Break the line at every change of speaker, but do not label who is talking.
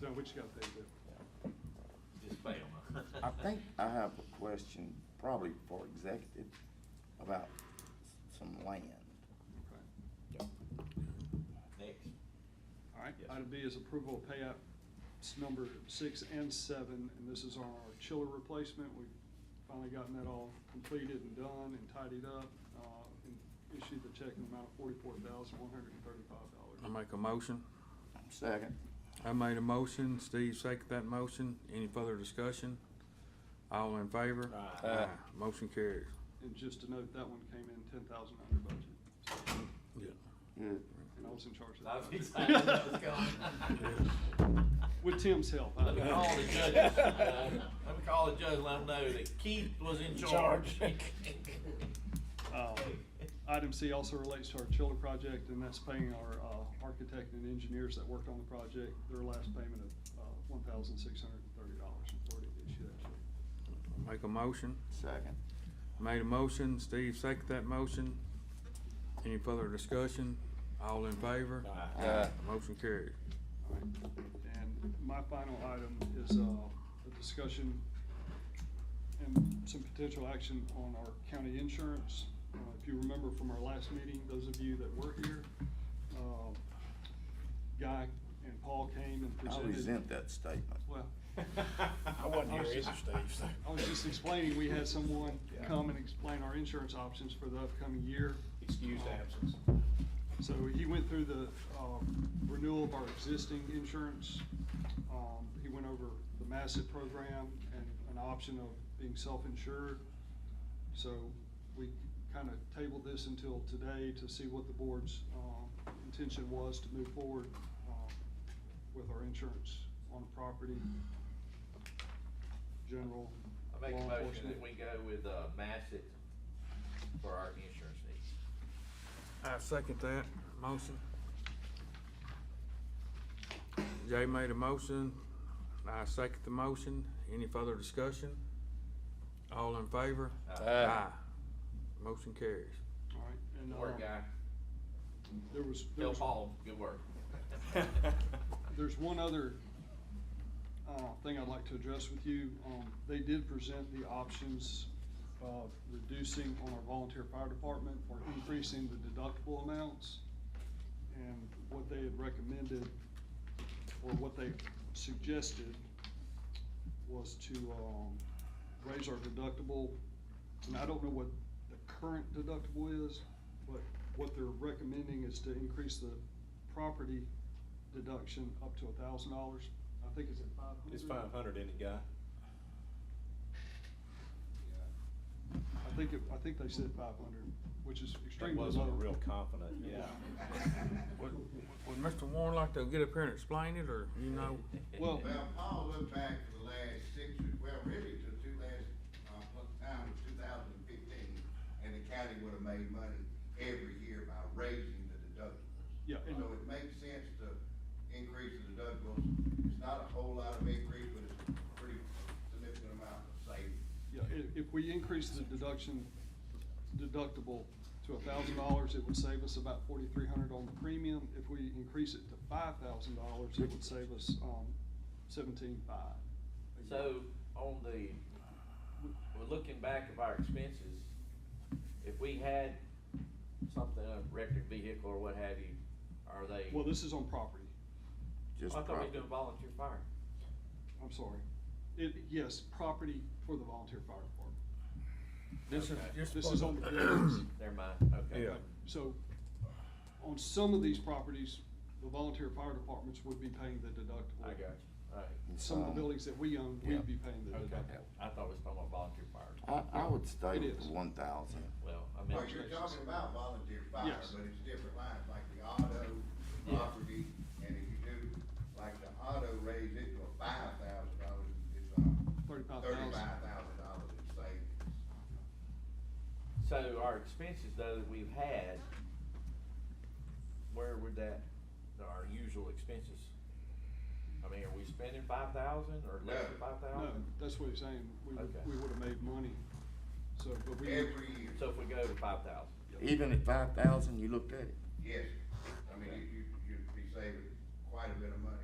So which got they do?
Just fail.
I think uh, I have a question, probably for executive, about some land.
Okay.
Next.
All right,
Yes.
item B is approval of payout s- number six and seven, and this is on our chiller replacement. We've finally gotten that all completed and done and tidied up, uh, and issued the check in the amount of forty-four thousand, one hundred and thirty-five
I
dollars.
make a motion.
Second,
I made a motion. Steve seconded that motion. Any further discussion? All in favor?
Aye.
Aye.
Motion carries.
And just to note, that one came in ten thousand under budget, so-
Yeah.
good.
and I was in charge of that.
I was excited about this going.
With Tim's help. I-
Let me call the judges, uh, let me call the judge, and let them know that Keith was in charge.
Uh, Item C also relates to our chiller project, and that's paying our uh, architect and engineers that worked on the project, their last payment of uh, one thousand six hundred and thirty dollars and forty to issue that check.
Make a motion.
Second,
Made a motion. Steve seconded that motion. Any further discussion? All in favor?
Aye.
Aye.
Motion carries.
All right. And my final item is uh, a discussion and some potential action on our county insurance. Uh, If you remember from our last meeting, those of you that were here, uh, Guy and Paul came and
I
presented.
resent that statement.
Well,
I
I
wasn't here
was
either,
just-
Steve, so.
I was just explaining, we had someone come and explain our insurance options for the upcoming year.
Excused
Uh,
absence.
So he went through the um, renewal of our existing insurance. Um, He went over the Massett program and an option of being self-insured. So we kind of tabled this until today to see what the board's um, intention was to move forward um, with our insurance on property, general,
I
law
make a
enforcement.
motion that we go with, uh, Massett for our insurance needs.
I second that motion. Jay made a motion. I second the motion. Any further discussion? All in favor?
Aye.
Motion carries.
All right, and,
Good
uh,
Work, guy.
There was, there
Tell
was,
Paul, good work.
there's one other, uh, thing I'd like to address with you. Um, they did present the options of reducing on our volunteer fire department or increasing the deductible amounts. And what they had recommended, or what they suggested, was to, um, raise our deductible. And I don't know what the current deductible is, but what they're recommending is to increase the property deduction up to a thousand dollars. I think it's at five hundred.
It's five hundred, isn't it, Guy?
I think, it- I think they said five hundred, which is
He
extremely low.
wasn't real confident, yeah.
Would, would Mr. Warren like to get up here and explain it, or you know?
Well-
Well, Paul looked back to the last six, well, really to two last, uh, one time was two thousand and fifteen, and the county would have made money every year by raising the deductibles.
Yeah, and-
So it makes sense to increase the deductibles, it's not a whole lot of increase, but it's a pretty significant amount of savings.
Yeah, if, if we increase the deduction deductible to a thousand dollars, it would save us about forty-three hundred on the premium. If we increase it to five thousand dollars, it would save us, um, seventeen-five.
So, on the, we're looking back of our expenses, if we had something, a wrecked vehicle or what have you, are they?
Well, this is on property,
Just
I thought we were
property.
doing volunteer fire.
I'm sorry. It, yes, property for the volunteer fire department.
This is,
Okay.
just
This is on the buildings.
Never mind, okay.
Yeah.
So, on some of these properties, the volunteer fire departments would be paying the deductible.
I got you, alright.
Some of the buildings that we own,
Yeah.
we'd be paying the
Um, Okay,
deductible.
I thought we was talking about volunteer fire.
I, I would stay
It
with
is.
the one thousand.
Well, I mean.
Well, you're talking about volunteer fire,
Yes.
but it's different lines, like the auto, property, and if you do, like the auto raise it to a five thousand dollars, it's, uh,
Thirty-five thousand.
thirty-five thousand dollars in savings.
So our expenses though that we've had, where would that, our usual expenses? I mean, are we spending five thousand or less than
No.
five
No,
thousand?
that's what he's saying, we would,
Okay.
we would have made money, so, but we.
Every year,
So if we go to five thousand?
Even at five thousand, you looked at it.
yes, I mean, you, you, you'd be saving quite a bit of money